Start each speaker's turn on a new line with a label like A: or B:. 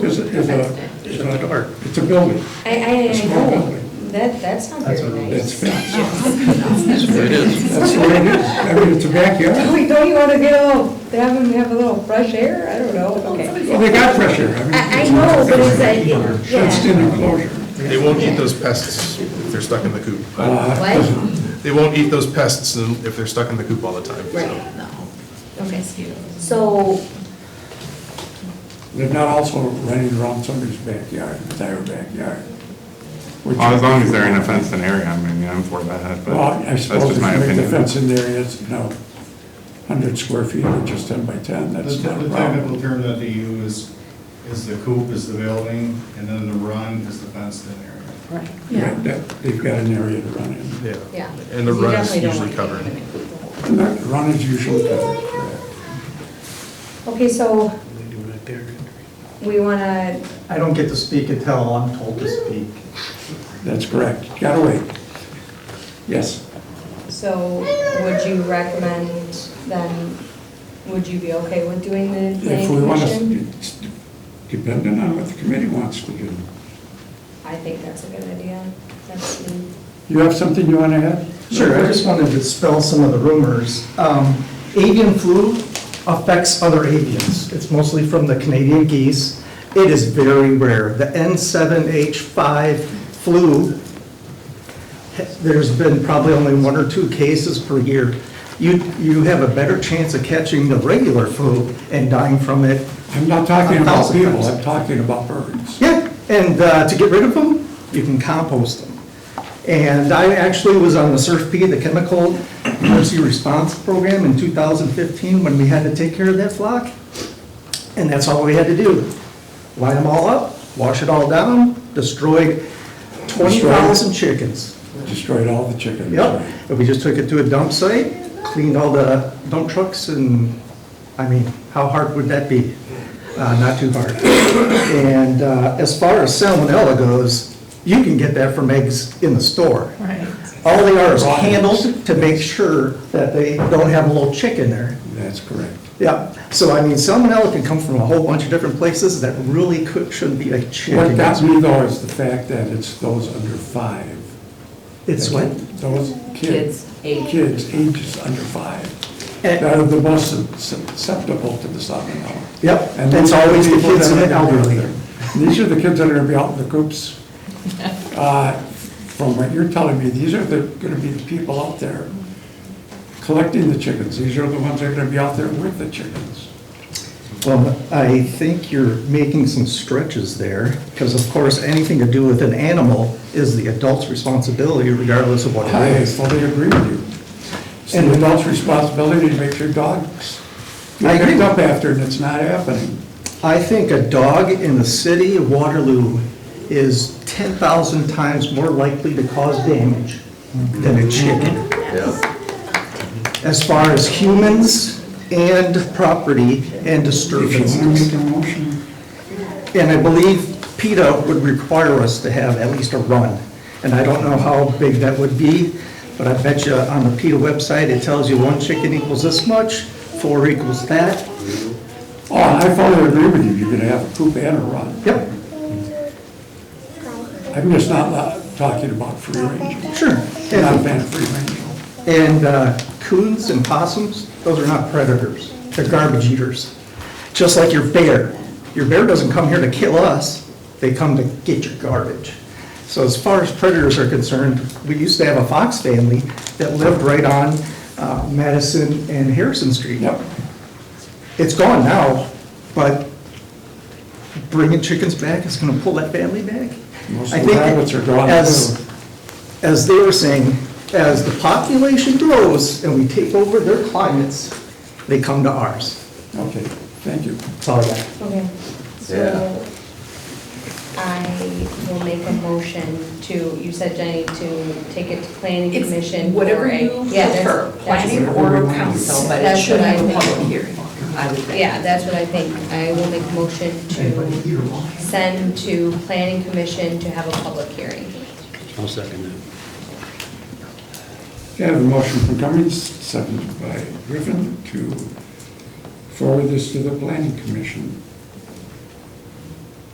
A: is, is a, is a, it's a building.
B: I,
A: It's
B: I, I
A: more building.
B: know, that, that's not
C: That's
B: very
C: what it
A: It's
B: nice.
A: fenced.
D: That's where it is.
A: That's the way it is. I mean, it's a backyard.
B: Don't don't you want to get a, little- have them have a little fresh air? I don't know. Okay.
A: Well, they got fresh air. mean,
B: I, I know, but it's like,
A: Fenced
B: yeah.
A: in enclosure.
E: They won't eat those pests if they're stuck in the coop.
B: What?
E: They won't eat those pests if they're stuck in the coop all the time, so.
B: Right.
D: No.
B: Okay.
D: Mosquitoes.
B: So,
A: They're not also running around somebody's backyard, their backyard. which-
F: Well, as long as they're in a fenced in area, I mean, I'm for that,
A: Well,
F: but
A: I
F: that's
A: suppose
F: just
A: if
F: my
A: you make the
F: opinion.
A: fence in there, it's, you know, 100 square feet or just 10 by 10,
C: The
A: that's
C: te-
A: not a
C: the
A: problem.
C: technical term that they use is the coop is the building, and then the run is the fenced-in area.
B: right,
A: Yeah, that- They've got an area to run in.
E: Yeah.
B: yeah.
E: And the
B: You
E: run is
B: definitely don't
E: usually
B: want to
E: covered.
B: contaminate the whole-
A: And that run is usually covered, correct.
B: Okay, so we want to,
G: I don't get to speak until I'm told to speak.
A: That's correct. Gotta wait. Yes.
B: so would you recommend then, would you be okay with doing the
A: If
B: planning
A: we want
B: commission?
A: to, depending on what the committee wants to do.
B: I think that's a good idea. That's me.
A: You have something you want to add?
G: Sure, I just wanted to dispel some of the rumors. Um, Avian flu affects other avians. It's mostly from the Canadian geese. It is very rare. The N7H5 flu, there's been probably only one or two cases per year. You, you have a better chance of catching the regular flu and dying from it.
A: I'm not talking about
G: Thousand
A: people,
G: times.
A: I'm talking about birds.
G: Yeah, and uh, to get rid of them, you can compost them. And I actually was on the SURF-P, the Chemical Emergency Response Program in 2015, when we had to take care of that flock. And that's all we had to do. Line them all up, wash it all down, destroyed 20,000 chickens.
A: Destroyed all the chickens.
G: Yep, and we just took it to a dump site, cleaned all the dump trucks, and, I mean, how hard would that be? Uh, Not too hard. And uh, as far as salmonella goes, you can get that from eggs in the store.
D: Right.
G: All they are is handled to make sure that they don't have a little chick in there.
A: That's correct.
G: Yeah, so I mean, salmonella can come from a whole bunch of different places that really could, shouldn't be a chick.
A: What got me though is the fact that it's those under five.
G: It's what?
A: Those kids.
D: Kids, age.
A: Kids, ages under five, that
G: And-
A: are the most sus- susceptible to the salmonella.
G: Yep,
A: And
G: it's
A: these are
G: always the
A: people
G: kids
A: that
G: and the
A: are gonna be out
G: elderly.
A: there. These are the kids that are gonna be out in the coops. Uh, From what you're telling me, these are the, gonna be the people out there collecting the chickens. These are the ones that are gonna be out there with the chickens.
G: Well, I think you're making some stretches there, because of course, anything to do with an animal is the adult's responsibility regardless of what it
A: I
G: is.
A: fully agree with you. It's the adult's responsibility to make sure dogs
G: I
A: get
G: agree.
A: picked up after, and it's not happening.
G: I think a dog in the city of Waterloo is 10,000 times more likely to cause damage than
A: Mm-hmm.
G: a chicken. As far as humans and property
A: If
G: and
A: you want to
G: disturbances.
A: make a motion,
G: And I believe PETA would require us to have at least a run. And I don't know how big that would be, but I bet you on the PETA website, it tells you one chicken equals this much, four equals that.
A: oh, I fully agree with you, you're gonna have a coop and a run.
G: Yep,
A: I'm just not la- talking about free range.
G: sure.
A: I'm not a
G: And-
A: fan of free range.
G: And uh, coons and possums, those are not predators. They're garbage eaters. Just like your bear. Your bear doesn't come here to kill us, they come to get your garbage. So as far as predators are concerned, we used to have a fox family that lived right on uh, Madison and Harrison Street.
A: Yep.
G: It's gone now, but bringing chickens back is going to pull that family back.
A: Most
G: I
A: of the
G: think
A: rabbits are gone,
G: as-
A: too.
G: As they were saying, as the population grows and we take over their climates, they come to ours.
A: Okay, thank you.
G: That's all I got.
B: Okay, so I will make a motion to, you said Jenny, to take it to planning
D: It's
B: commission. for
D: Whatever
B: a-
D: you
B: Yeah, that's-
D: prefer,
B: that's-
D: planning or council, but it
B: That's
D: should
B: what I
D: have a
B: think.
D: public hearing, I would think.
B: Yeah, that's what I think. I will make a motion to send to planning commission to have a public hearing.
H: I'll second that.
A: Okay, I have a motion from Cummings, seconded by Griffin, to forward this to the planning commission.